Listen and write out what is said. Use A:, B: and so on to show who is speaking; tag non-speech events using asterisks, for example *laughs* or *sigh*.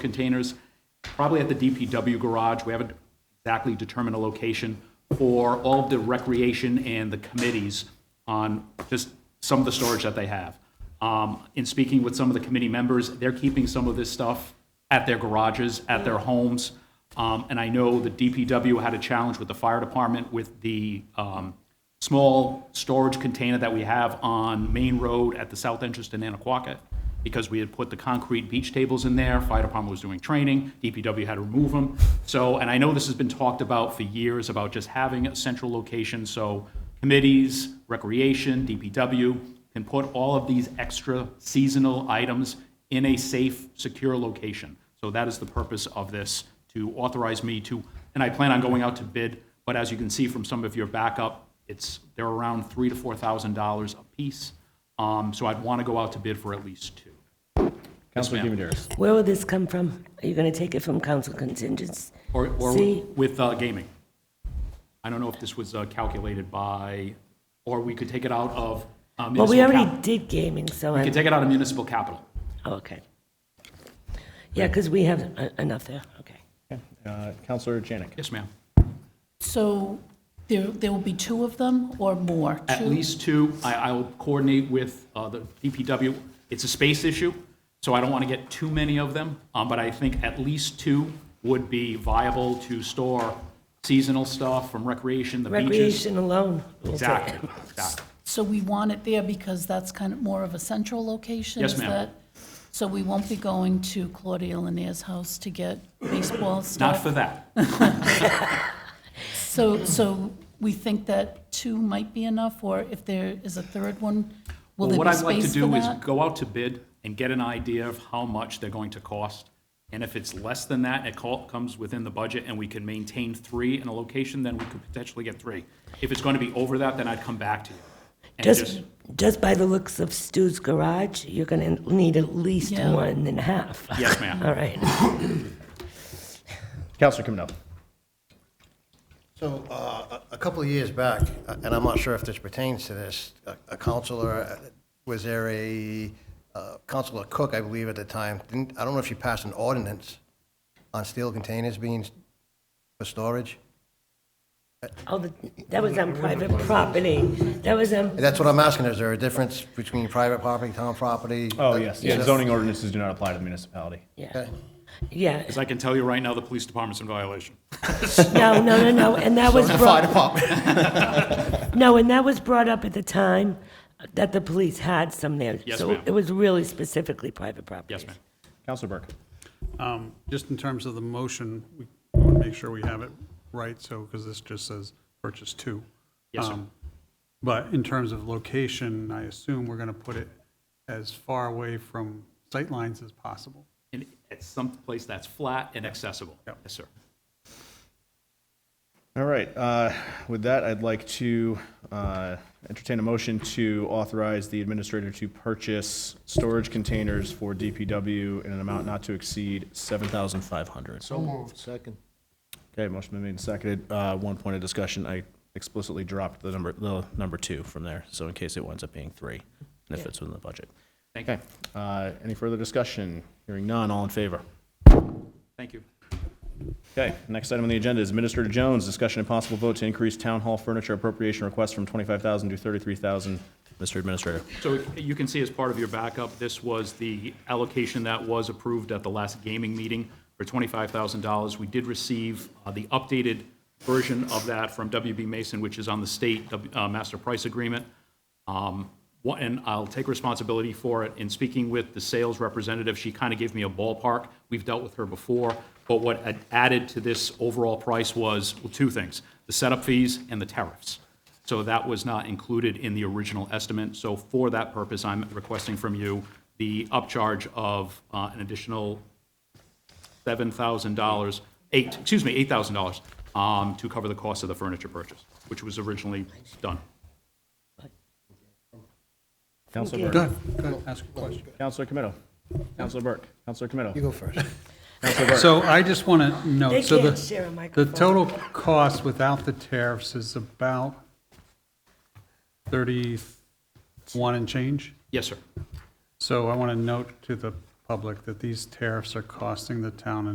A: containers, probably at the DPW garage. We haven't exactly determined a location for all of the recreation and the committees on just some of the storage that they have. Um, In speaking with some of the committee members, they're keeping some of this stuff at their garages, at their homes. Um, And I know the DPW had a challenge with the fire department with the um, small storage container that we have on Main Road at the south entrance to Nanaquacket, because we had put the concrete beach tables in there, fire department was doing training, DPW had to remove them. So, and I know this has been talked about for years, about just having a central location, so committees, recreation, DPW can put all of these extra seasonal items in a safe, secure location. So that is the purpose of this, to authorize me to, and I plan on going out to bid, but as you can see from some of your backup, it's, they're around three to $4,000 a piece. Um, So I'd want to go out to bid for at least two.
B: Councilman
A: ma'am.
B: Demidaris.
C: Where will this come from? Are you going to take it from council contingents?
A: Or, or
C: See?
A: with uh, gaming. I don't know if this was uh, calculated by, or we could take it out of uh,
C: Well, we
A: municipal
C: already
A: capital.
C: did gaming, so
A: We
C: I'm,
A: could take it out of municipal capital.
C: oh, okay. Yeah, because we have uh, enough there, okay.
B: Uh, Counselor Janik.
A: Yes, ma'am.
D: So there, there will be two of them or more?
A: At
D: Two?
A: least two. I, I will coordinate with uh, the DPW. It's a space issue, so I don't want to get too many of them, um, but I think at least two would be viable to store seasonal stuff from recreation, the beaches.
C: Recreation alone. will do it. *laughs*
A: Exactly, exactly.
D: So we want it there because that's kind of more of a central location?
A: Yes,
D: is
A: ma'am.
D: that- So we won't be going to Claudia Linnea's house to get baseball
A: Not
D: stuff?
A: for that.
D: So, so we think that two might be enough, or if there is a third one, will
A: Well,
D: there
A: What
D: be
A: I'd like to
D: space for
A: do is
D: that?
A: go out to bid and get an idea of how much they're going to cost. And if it's less than that, it co- comes within the budget and we can maintain three in a location, then we could potentially get three. If it's going to be over that, then I'd come back to you. and
C: Just, just by the looks of Stu's garage, you're going to need at least
D: Yeah.
C: one and a half.
A: Yes, ma'am.
C: *laughs* All right.
B: Counselor Camino.
E: So uh, a a couple of years back, uh, and I'm not sure if this pertains to this, a- a counselor, uh, was there a, uh, Counselor Cook, I believe at the time, didn't, I don't know if she passed an ordinance on steel containers being s- for storage?
C: Oh, the- that was on private property. That was on,
E: That's what I'm asking, is there a difference between private property, town property?
B: Oh, yes.
E: Is
B: Yeah,
E: that-
B: zoning ordinances do not apply to the municipality.
C: yeah,
E: Okay.
C: yeah.
A: Because I can tell you right now, the police department's in violation.
C: No, no, no, no, and that was
E: The
C: brought
E: fire department.
C: No, and that was brought up at the time that the police had some there.
A: Yes,
C: So
A: ma'am.
C: it was really specifically private property.
A: Yes, ma'am.
B: Counselor Burke.
F: Um, Just in terms of the motion, we want to make sure we have it right, so, because this just says purchase two.
A: Yes, sir.
F: Um, But in terms of location, I assume we're going to put it as far away from sightlines as possible.
A: And it's someplace that's flat and accessible. Yes, sir.
B: All right. uh, With that, I'd like to uh, entertain a motion to authorize the administrator to purchase storage containers for DPW in an amount not to exceed 7500 So moved. Second. Okay, motion been made and seconded. Uh, One point of discussion, I explicitly dropped the number, the number two from there, so in case it winds up being three, and if it's within the budget.
A: Thank you.
B: Okay. uh, Any further discussion? Hearing none, all in favor?
A: Thank you.
B: Okay, next item on the agenda is Administrator Jones, discussion and possible vote to increase town hall furniture appropriation request from 25,000 to 33,000. Mr. Administrator.
A: So you can see as part of your backup, this was the allocation that was approved at the last gaming meeting for $25,000. We did receive uh, the updated version of that from WB Mason, which is on the state uh, master price agreement. Um, what- And I'll take responsibility for it. In speaking with the sales representative, she kind of gave me a ballpark. We've dealt with her before, but what had added to this overall price was, well, two things, the setup fees and the tariffs. So that was not included in the original estimate. So for that purpose, I'm requesting from you the upcharge of uh, an additional $7,000, eight, excuse me, $8,000 um, to cover the cost of the furniture purchase, which was originally done.
B: Counselor Burke.
F: Good, good, ask a question.
B: Counselor Camino. Counselor Burke. Counselor Camino.
E: You go first.
F: So I just want to
C: They
F: note, so
C: can't share a
F: the, the
C: microphone.
F: total cost without the tariffs is about 31 and change?
A: Yes, sir.
F: So I want to note to the public that these tariffs are costing the town an